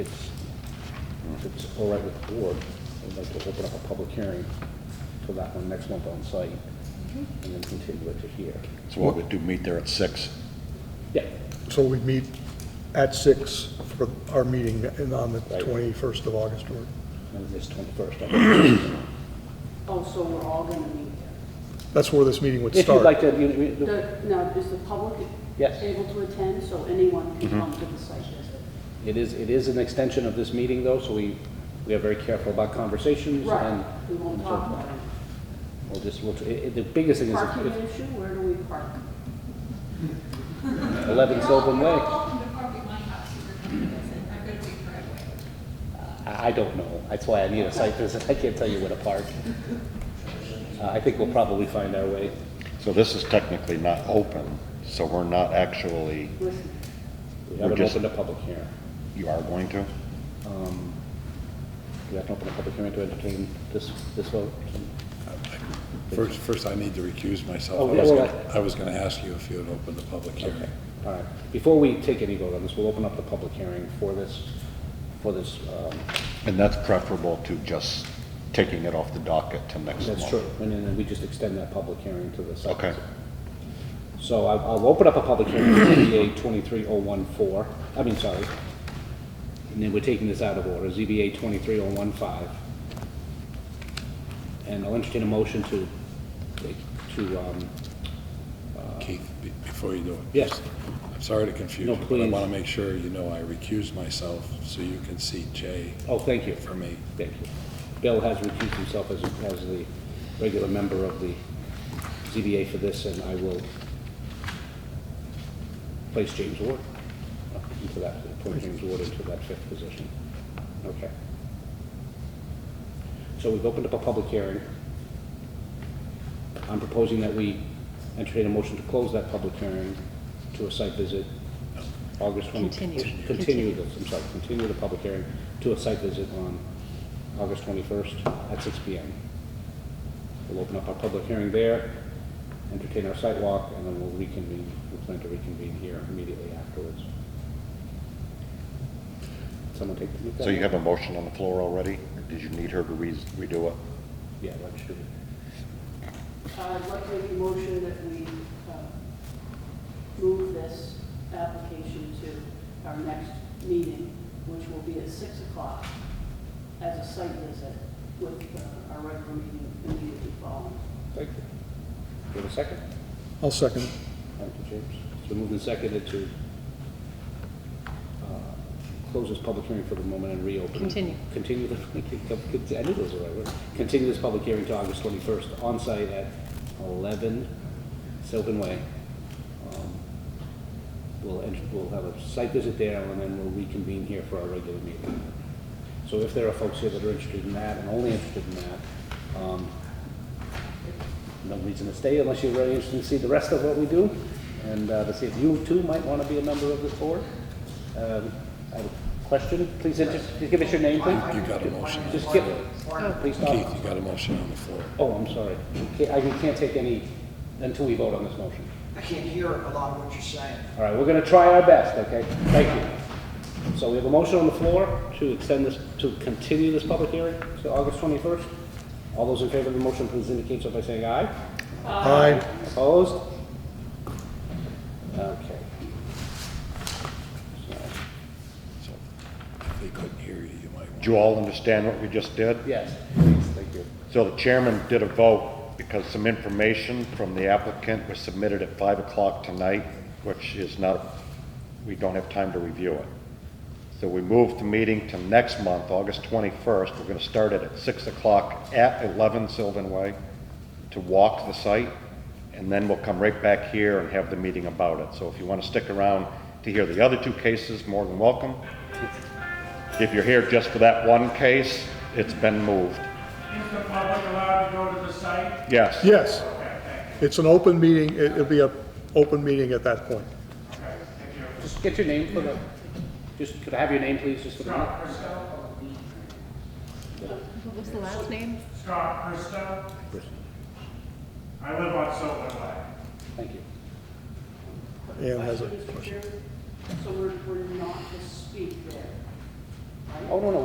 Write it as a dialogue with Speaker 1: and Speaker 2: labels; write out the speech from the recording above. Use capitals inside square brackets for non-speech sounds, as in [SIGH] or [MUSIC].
Speaker 1: it's, if it's all right with the board, I'd like to open up a public hearing for that one next month on site,
Speaker 2: Mm-hmm.
Speaker 1: and then continue it to here.
Speaker 3: So what we do, meet there at six.
Speaker 1: Yeah,
Speaker 4: So we meet at six for our meeting in- on the
Speaker 1: Right.
Speaker 4: 21st of August, or,
Speaker 1: and this twenty-first.
Speaker 2: Oh, so we're all gonna meet there?
Speaker 4: that's where this meeting would
Speaker 1: If you'd like
Speaker 4: start.
Speaker 1: to, you- you-
Speaker 2: The- Now, is the public
Speaker 1: Yes.
Speaker 2: able to attend, so anyone can come to the site visit?
Speaker 1: it is, it is an extension of this meeting, though, so we, we are very careful about conversations, and
Speaker 2: Right, we won't talk about it.
Speaker 1: we'll just, we'll, it- it- the biggest thing is
Speaker 2: Parking
Speaker 1: if-
Speaker 2: issue, where do we park?
Speaker 1: if eleven Sylvan
Speaker 5: They're
Speaker 1: Way.
Speaker 5: all welcome to park at my house, you're coming to visit, I'm gonna wait for everyone.
Speaker 1: I I don't know. That's why I need a site visit. I can't tell you where to
Speaker 2: [LAUGHS]
Speaker 1: park. Uh, I think we'll probably find our way.
Speaker 3: So this is technically not open, so we're not actually,
Speaker 2: Listen,
Speaker 1: We
Speaker 3: We're
Speaker 1: haven't
Speaker 3: just-
Speaker 1: opened a public hearing.
Speaker 3: you are going to?
Speaker 1: We haven't opened a public hearing to entertain this, this vote.
Speaker 6: First, first I need to recuse myself.
Speaker 1: Oh,
Speaker 6: I
Speaker 1: yeah,
Speaker 6: was
Speaker 1: well,
Speaker 6: gonna- I was going to ask you if you had opened the public
Speaker 1: Okay.
Speaker 6: hearing.
Speaker 1: All right. Before we take any vote on this, we'll open up the public hearing for this, for this, um,
Speaker 3: And that's preferable to just taking it off the docket to next month.
Speaker 1: that's true. And then we just extend that public hearing to the site.
Speaker 3: Okay.
Speaker 1: visit. So I- I'll open up a public hearing for ZBA 23014, I mean, sorry. And then we're taking this out of order, ZBA 23015. And I'll entertain a motion to, to, um,
Speaker 6: Keith, be- before you do it.
Speaker 1: Yes.
Speaker 6: I'm sorry to confuse
Speaker 1: No,
Speaker 6: you, but I
Speaker 1: please.
Speaker 6: want to make sure you know I recused myself so you can see Jay
Speaker 1: oh, thank you.
Speaker 6: for me.
Speaker 1: Thank you. Bill has recused himself as, as the regular member of the ZBA for this, and I will place James Ward into that, appoint James Ward into that fifth position. Okay. So we've opened up a public hearing. I'm proposing that we entertain a motion to close that public hearing to a site visit, August 20... Continue. Continue this, I'm sorry, continue the public hearing to a site visit on August 21st at 6 PM. We'll open up our public hearing there, entertain our site walk, and then we'll reconvene, we plan to reconvene here immediately afterwards. Someone take the...
Speaker 3: So you have a motion on the floor already? Did you need her to re- redo it?
Speaker 1: Yeah, that should be...
Speaker 2: I'd like to make a motion that we uh, move this application to our next meeting, which will be at 6 o'clock as a site visit with uh, our regular meeting immediately following.
Speaker 1: Thank you. Do you have a second?
Speaker 4: I'll second.
Speaker 1: Thank you, James. It's been moved and seconded to uh, close this public hearing for the moment and reopen. it.
Speaker 7: Continue.
Speaker 1: Continue [LAUGHS] the, I knew those were the right words. Continue this public hearing to August 21st, on site at 11 Sylvan Way. Um, We'll, ent- we'll have a site visit there, and then we'll reconvene here for our regular meeting. So if there are folks here that are interested in that, and only interested in that, um, no reason to stay unless you're really interested to see the rest of what we do, and uh, to see if you too might want to be a member of this board. Um, I have a question, please, inter- please give us your name, please.
Speaker 6: You got a motion. on-
Speaker 1: Just give, please
Speaker 6: Keith,
Speaker 1: stop.
Speaker 6: you got a motion on the floor.
Speaker 1: Oh, I'm sorry. Ca- I we can't take any until we vote on this motion.
Speaker 8: I can't hear a lot of what you're saying.
Speaker 1: All right, we're going to try our best, okay? Thank you. So we have a motion on the floor to extend this, to continue this public hearing to August 21st. All those in favor of the motion, please indicate so by saying aye.
Speaker 4: Aye.
Speaker 1: Opposed? Okay. So,
Speaker 6: So If they couldn't hear you, you might want.
Speaker 3: Do you all understand what we just did?
Speaker 1: Yes, please, thank you.
Speaker 3: So the chairman did a vote because some information from the applicant was submitted at five o'clock tonight, which is not, we don't have time to review it. So we moved the meeting to next month, August twenty-first. We're gonna start it at six o'clock at eleven Sylvan Way to walk the site, and then we'll come right back here and have the meeting about it. So if you wanna stick around to hear the other two cases, more than welcome. If you're here just for that one case, it's been moved.
Speaker 9: Is the public allowed to go to the site?
Speaker 3: Yes.
Speaker 4: Yes. It's an open meeting, It- it'll be a open meeting at that point.
Speaker 9: Okay, thank you.
Speaker 1: Just get your name for the, just, could I have your name, please, just for the minute?
Speaker 9: Scott Bristow?
Speaker 7: What was the last name?
Speaker 9: Scott Bristow? I live on Sylvan Way.
Speaker 1: Thank you.
Speaker 4: Ann has a
Speaker 2: Mr.
Speaker 4: question.
Speaker 2: Chairman, So we're, we're not to speak there.
Speaker 1: oh, no, no,